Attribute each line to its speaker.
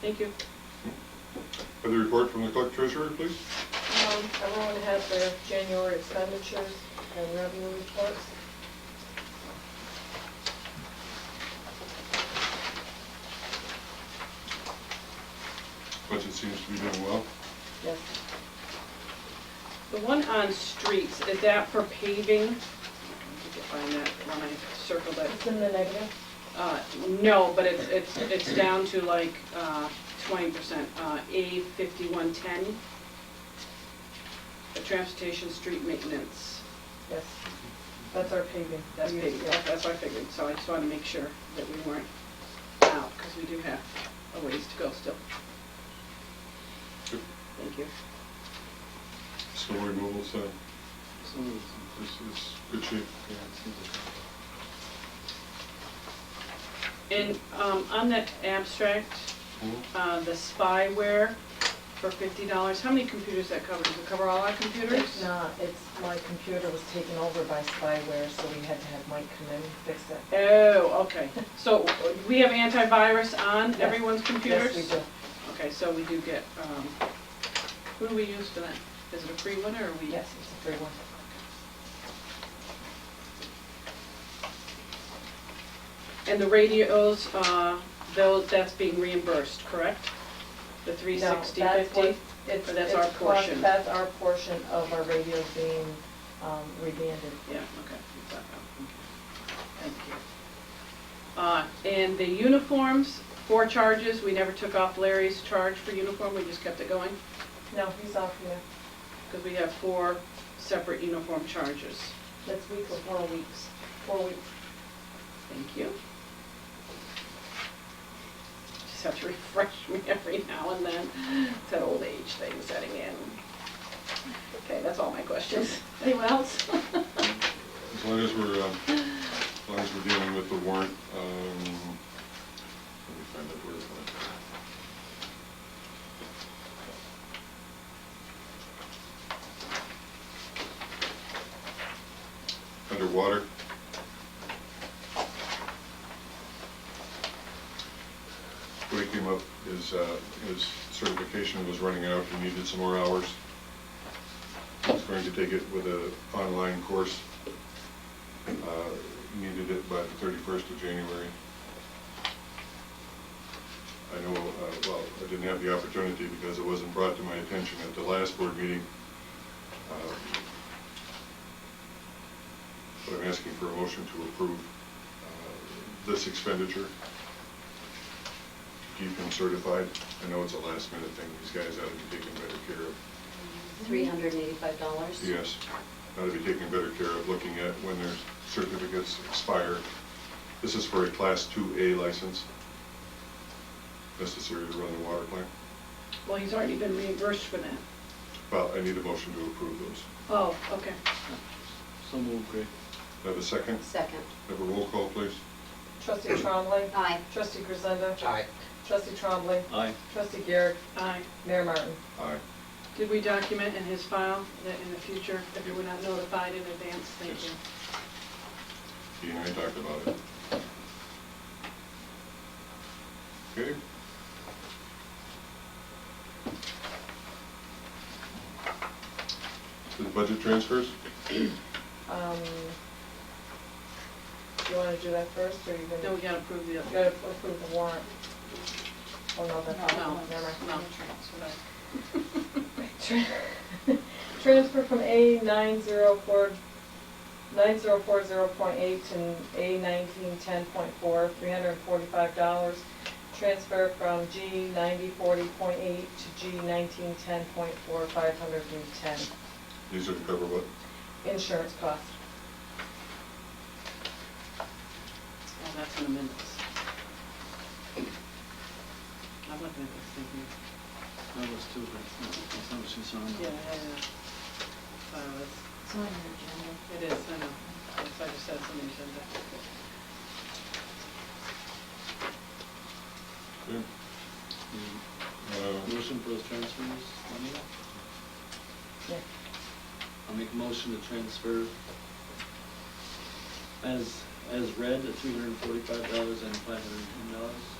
Speaker 1: Thank you.
Speaker 2: Have the report from the clerk treasurer, please.
Speaker 3: Um, Everyone had their January expenditures and revenue reports.
Speaker 2: Budget seems to be doing well.
Speaker 3: Yes,
Speaker 1: The one on streets, is that for paving? I can find that when I circled it.
Speaker 3: it's in the negative.
Speaker 1: Uh, No, but it's, it's, it's down to like uh, twenty percent, uh, A fifty-one ten. The transportation street maintenance,
Speaker 3: Yes, that's our paving.
Speaker 1: that's
Speaker 3: We
Speaker 1: big,
Speaker 3: use-
Speaker 1: that- that's what I figured, so I just wanted to make sure that we weren't out, because we do have a ways to go still. Thank you.
Speaker 2: Snow removal, so
Speaker 4: So moved.
Speaker 2: this is good shape.
Speaker 4: Yeah, it seems like-
Speaker 1: And um, on that abstract, uh, the spyware for fifty dollars, how many computers that cover? Does it cover all our computers?
Speaker 3: It's not, it's, my computer was taken over by spyware, so we had to have Mike come in and fix it.
Speaker 1: Oh, okay. So we have antivirus on
Speaker 3: Yes.
Speaker 1: everyone's computers?
Speaker 3: Yes, we do.
Speaker 1: Okay, so we do get, um, who do we use for that? Is it a free one or are we?
Speaker 3: Yes, it's a free one.
Speaker 1: And the radios, uh, those, that's being reimbursed, correct? The three
Speaker 3: No,
Speaker 1: sixty
Speaker 3: that's
Speaker 1: fifty?
Speaker 3: what- it's-
Speaker 1: Or that's
Speaker 3: it's
Speaker 1: our
Speaker 3: plus-
Speaker 1: portion?
Speaker 3: That's our portion of our radios being um, rebanded.
Speaker 1: Yeah, okay. Thank you. Uh, And the uniforms, four charges, we never took off Larry's charge for uniform, we just kept it going,
Speaker 3: No, he's off here.
Speaker 1: because we have four separate uniform charges.
Speaker 3: That's week or four weeks, four weeks.
Speaker 1: Thank you. Just have to refresh me every now and then, it's that old age thing setting in. Okay, that's all my questions. Anyone else?
Speaker 2: As long as we're, um, as long as we're dealing with the warrant, um, let me find that word for it. Underwater. When he came up, his, uh, his certification was running out, he needed some more hours. He's going to take it with a online course. Uh, Needed it by the thirty-first of January. I know, uh, well, I didn't have the opportunity because it wasn't brought to my attention at the last board meeting. Um, But I'm asking for a motion to approve uh, this expenditure. to Keep him certified. I know it's a last-minute thing. These guys ought to be taken better care of.
Speaker 5: Three hundred and eighty-five dollars?
Speaker 2: Yes, ought to be taken better care of, looking at when their certificates expire. This is for a Class 2A license, necessary to run the water plant.
Speaker 1: Well, he's already been reimbursed for that.
Speaker 2: Well, I need a motion to approve those.
Speaker 1: Oh, okay.
Speaker 4: So moved, Greg.
Speaker 2: Have a second?
Speaker 5: Second.
Speaker 2: Have a roll call, please.
Speaker 3: Trustee Trombley.
Speaker 5: Aye.
Speaker 3: Trustee Grisenda. Trustee Trombley.
Speaker 4: Aye.
Speaker 3: Trustee Garrett.
Speaker 1: Aye.
Speaker 3: Mayor Martin.
Speaker 2: Aye.
Speaker 1: Did we document in his file that in the future, if you were not notified in advance, thank you.
Speaker 2: He and I talked about it. Okay? So the budget transfers?
Speaker 3: Um, Do you want to do that first, or you
Speaker 1: Then
Speaker 3: going
Speaker 1: we
Speaker 3: to,
Speaker 1: gotta approve the
Speaker 3: you
Speaker 1: other.
Speaker 3: got to approve the warrant? Oh, no, that's
Speaker 1: No,
Speaker 3: not, never mind.
Speaker 1: no.
Speaker 3: Tran- Transfer from A nine zero four, nine zero four zero point eight to A nineteen ten point four, three hundred and forty-five dollars. Transfer from G ninety forty point eight to G nineteen ten point four, five hundred and ten.
Speaker 2: These are to cover what?
Speaker 3: Insurance cost.
Speaker 1: Oh, that's in the minutes. I'm looking at this thing here.
Speaker 4: That was two, but it's not- it's not what you saw on the-
Speaker 1: Yeah, yeah, yeah. So it's,
Speaker 5: It's on your agenda.
Speaker 1: it is, I know. Yes, I just had some agenda.
Speaker 2: Okay.
Speaker 4: The
Speaker 2: Uh,
Speaker 4: Mm. Motion for those transfers, Lenny?
Speaker 3: Yeah.
Speaker 4: I'll make a motion to transfer as, as read, the three hundred and forty-five dollars and five hundred and ten dollars.